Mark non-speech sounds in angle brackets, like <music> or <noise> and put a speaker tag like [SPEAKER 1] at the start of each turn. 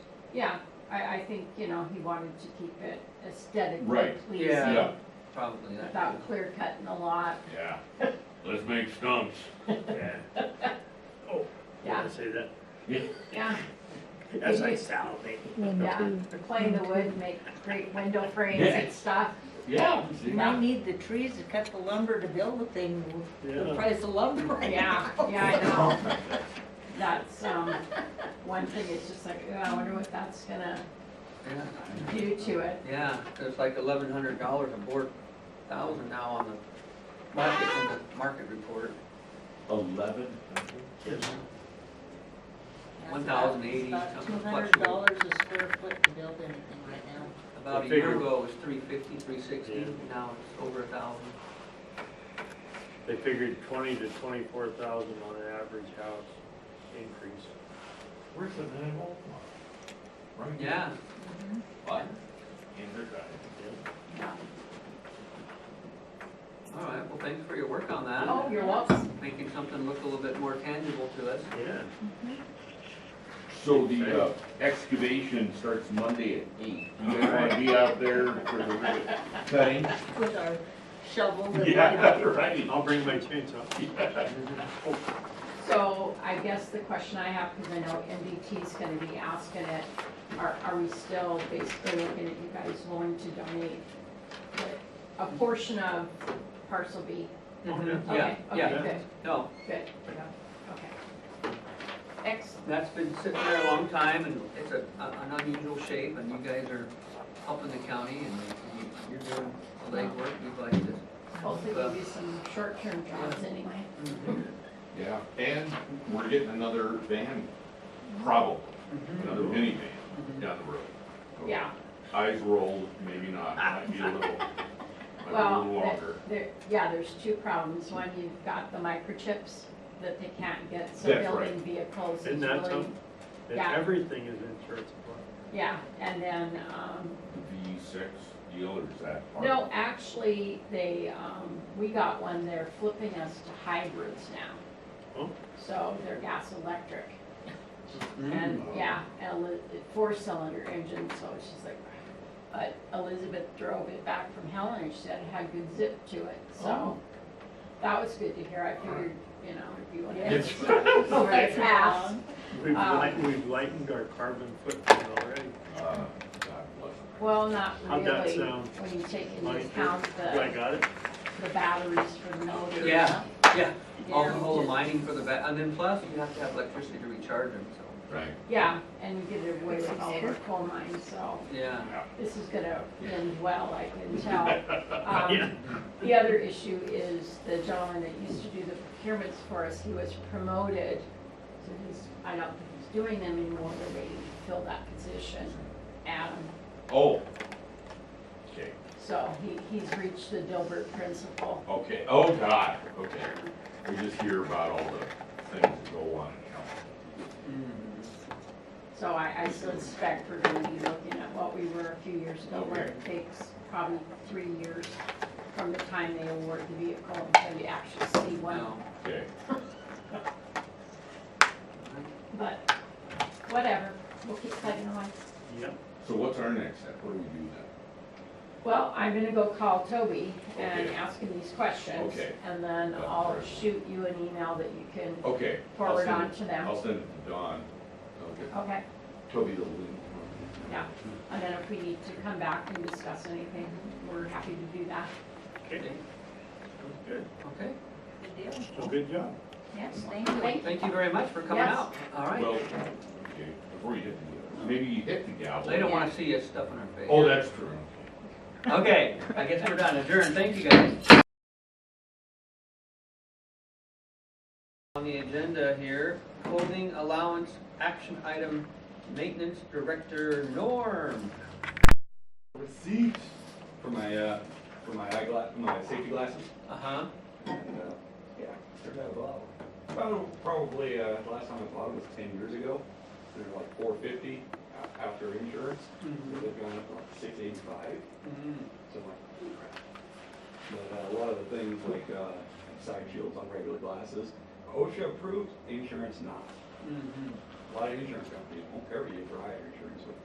[SPEAKER 1] Yeah, I, I think, you know, he wanted to keep it aesthetically
[SPEAKER 2] Right.
[SPEAKER 1] pleasing,
[SPEAKER 2] Yeah.
[SPEAKER 3] Probably not.
[SPEAKER 1] without clear cutting a lot,
[SPEAKER 2] Yeah,
[SPEAKER 4] <laughs> Let's make stumps.
[SPEAKER 5] Yeah. Oh, you
[SPEAKER 1] yeah,
[SPEAKER 5] wanna say that?
[SPEAKER 1] yeah,
[SPEAKER 5] As I salivate.
[SPEAKER 1] yeah. Play the wood, make great window frames and
[SPEAKER 2] Yeah.
[SPEAKER 1] stuff,
[SPEAKER 2] yeah.
[SPEAKER 6] You might need the trees to cut the lumber to build the thing, the
[SPEAKER 5] Yeah.
[SPEAKER 6] price of lumber.
[SPEAKER 1] yeah,
[SPEAKER 6] <laughs>
[SPEAKER 1] yeah, I know. That's, um, one thing, it's just like, oh, I wonder what that's gonna
[SPEAKER 3] Yeah.
[SPEAKER 1] do to it.
[SPEAKER 3] Yeah, it's like eleven hundred dollars a board, thousand now on the market, in the market report.
[SPEAKER 2] Eleven.
[SPEAKER 5] Mm-hmm.
[SPEAKER 3] One thousand eighty,
[SPEAKER 6] Two
[SPEAKER 3] something
[SPEAKER 6] hundred dollars a square foot to build anything right now.
[SPEAKER 3] About a
[SPEAKER 5] The
[SPEAKER 3] year
[SPEAKER 5] figure-
[SPEAKER 3] ago, it was three fifty, three sixty,
[SPEAKER 5] Yeah.
[SPEAKER 3] now it's over a thousand.
[SPEAKER 5] They figured twenty to twenty-four thousand on an average house increase.
[SPEAKER 4] Where's the nine hole? Right here.
[SPEAKER 3] Yeah,
[SPEAKER 2] What?
[SPEAKER 4] In her drive.
[SPEAKER 1] Yeah.
[SPEAKER 3] all right, well, thanks for your work on that,
[SPEAKER 1] Oh, you're welcome.
[SPEAKER 3] making something look a little bit more tangible to us.
[SPEAKER 5] Yeah.
[SPEAKER 2] So the uh, excavation starts Monday at eight. You guys wanna be out there for the cutting?
[SPEAKER 4] <laughs>
[SPEAKER 6] With our shovel and.
[SPEAKER 2] Yeah, right.
[SPEAKER 5] I'll bring my chainsaw.
[SPEAKER 1] Mm-hmm. So I guess the question I have, because I know MDT's gonna be asking it, are, are we still basically looking at you guys willing to donate a portion of parcel B?
[SPEAKER 3] Yeah,
[SPEAKER 1] Okay,
[SPEAKER 3] yeah,
[SPEAKER 1] Okay,
[SPEAKER 3] no,
[SPEAKER 1] good, good, yeah, okay. Excellent,
[SPEAKER 3] that's been sitting there a long time, and it's a, a- an unusual shape, and you guys are helping the county, and you- you're doing the legwork, you'd like to.
[SPEAKER 1] hopefully we'll do some short-term jobs anyway.
[SPEAKER 2] Yeah, and we're getting another van, probably,
[SPEAKER 1] Mm-hmm.
[SPEAKER 2] another minivan down the road. So
[SPEAKER 1] Yeah,
[SPEAKER 2] Eyes rolled, maybe not, might be a little, might be a
[SPEAKER 1] well,
[SPEAKER 2] little longer.
[SPEAKER 1] there- there, yeah, there's two problems. One, you've got the microchips that they can't get, so
[SPEAKER 2] That's right.
[SPEAKER 1] building vehicles is really.
[SPEAKER 5] Isn't that something? And
[SPEAKER 1] Yeah.
[SPEAKER 5] everything is insurance. applicable.
[SPEAKER 1] Yeah, and then, um,
[SPEAKER 2] V six deal or is that part?
[SPEAKER 1] no, actually, they, um, we got one, they're flipping us to hybrids now.
[SPEAKER 5] Oh.
[SPEAKER 1] So they're gas electric,
[SPEAKER 5] Hmm.
[SPEAKER 1] and, yeah, and a four cylinder engine, so it's just like, but Elizabeth drove it back from Helen, and she said it had good zip to it,
[SPEAKER 5] Oh.
[SPEAKER 1] so. That was good to hear, I figured, you know, if you wanted
[SPEAKER 5] <laughs>
[SPEAKER 6] Yes.
[SPEAKER 1] to.
[SPEAKER 6] Right
[SPEAKER 1] Fast.
[SPEAKER 6] now.
[SPEAKER 5] We've
[SPEAKER 1] Um,
[SPEAKER 5] lightened, we've lightened our carbon footprint already.
[SPEAKER 2] Uh, God bless.
[SPEAKER 1] Well, not
[SPEAKER 5] How'd that
[SPEAKER 1] really,
[SPEAKER 5] sound?
[SPEAKER 1] when you take into
[SPEAKER 5] Like,
[SPEAKER 1] account
[SPEAKER 5] Do I
[SPEAKER 1] the,
[SPEAKER 5] got it?
[SPEAKER 1] the batteries for the motor.
[SPEAKER 3] Yeah, yeah,
[SPEAKER 1] you
[SPEAKER 3] all the
[SPEAKER 1] know,
[SPEAKER 3] whole
[SPEAKER 1] just-
[SPEAKER 3] mining for the back, and then plus, you have to have electricity to recharge them, so,
[SPEAKER 2] Right.
[SPEAKER 1] Yeah, and you get it away with all the coal mines, so
[SPEAKER 3] yeah.
[SPEAKER 1] this is gonna end well, I can tell. Um, The other issue is the gentleman that used to do the procurements for us, he was promoted. So he's, I don't think he's doing them anymore, but they filled that position, Adam.
[SPEAKER 2] Oh. Okay,
[SPEAKER 1] So he, he's reached the Dilbert principle.
[SPEAKER 2] okay, oh God, okay. We just hear about all the things that go on in hell.
[SPEAKER 3] Mm-hmm.
[SPEAKER 1] So I, I suspect we're gonna be looking at what we were a few years ago, where it takes probably three years from the time they award the vehicle until you actually see one.
[SPEAKER 3] Wow.
[SPEAKER 2] Okay,
[SPEAKER 1] But whatever, we'll keep plugging away.
[SPEAKER 5] Yep.
[SPEAKER 2] so what's our next step? What do we do then?
[SPEAKER 1] Well, I'm gonna go call Toby and
[SPEAKER 2] Okay.
[SPEAKER 1] ask him these questions.
[SPEAKER 2] Okay.
[SPEAKER 1] And then
[SPEAKER 2] That's
[SPEAKER 1] I'll
[SPEAKER 2] great.
[SPEAKER 1] shoot you an email that you can
[SPEAKER 2] Okay. I'll
[SPEAKER 1] forward
[SPEAKER 2] send
[SPEAKER 1] on
[SPEAKER 2] it- Oh.
[SPEAKER 1] to them.
[SPEAKER 2] I'll send it to Dawn. Okay.
[SPEAKER 1] Okay,
[SPEAKER 2] Toby the link.
[SPEAKER 1] yeah. And then if we need to come back and discuss anything, we're happy to do that.
[SPEAKER 5] Okay, sounds good.
[SPEAKER 3] Okay,
[SPEAKER 6] Good deal.
[SPEAKER 5] So good job.
[SPEAKER 6] Yes, thank you.
[SPEAKER 1] Thank you.
[SPEAKER 3] thank you very much for coming
[SPEAKER 1] Yes.
[SPEAKER 3] out. All right,
[SPEAKER 2] Well, okay, before you hit the, uh, maybe you hit the gavel.
[SPEAKER 3] they don't wanna see us stuffing our face.
[SPEAKER 2] Oh, that's true.
[SPEAKER 3] Okay, I guess we're done, adjourned, thank you guys. On the agenda here, clothing allowance, action item, maintenance director Norm.
[SPEAKER 7] receipt for my uh, for my eyeglass, my safety glasses.
[SPEAKER 3] Uh-huh,
[SPEAKER 7] And, uh, yeah, turned out well. Probably, probably uh, the last time I bought it was ten years ago. They're like four fifty after insurance. So
[SPEAKER 3] Mhm.
[SPEAKER 7] They've gone up to like six eighty five.
[SPEAKER 3] Mhm.
[SPEAKER 7] So I'm like, "Holy crap." But uh, a lot of the things like uh, side shields on regular glasses, OSHA approved, insurance not.
[SPEAKER 3] Mhm.
[SPEAKER 7] A lot of insurance companies won't cover you for higher insurance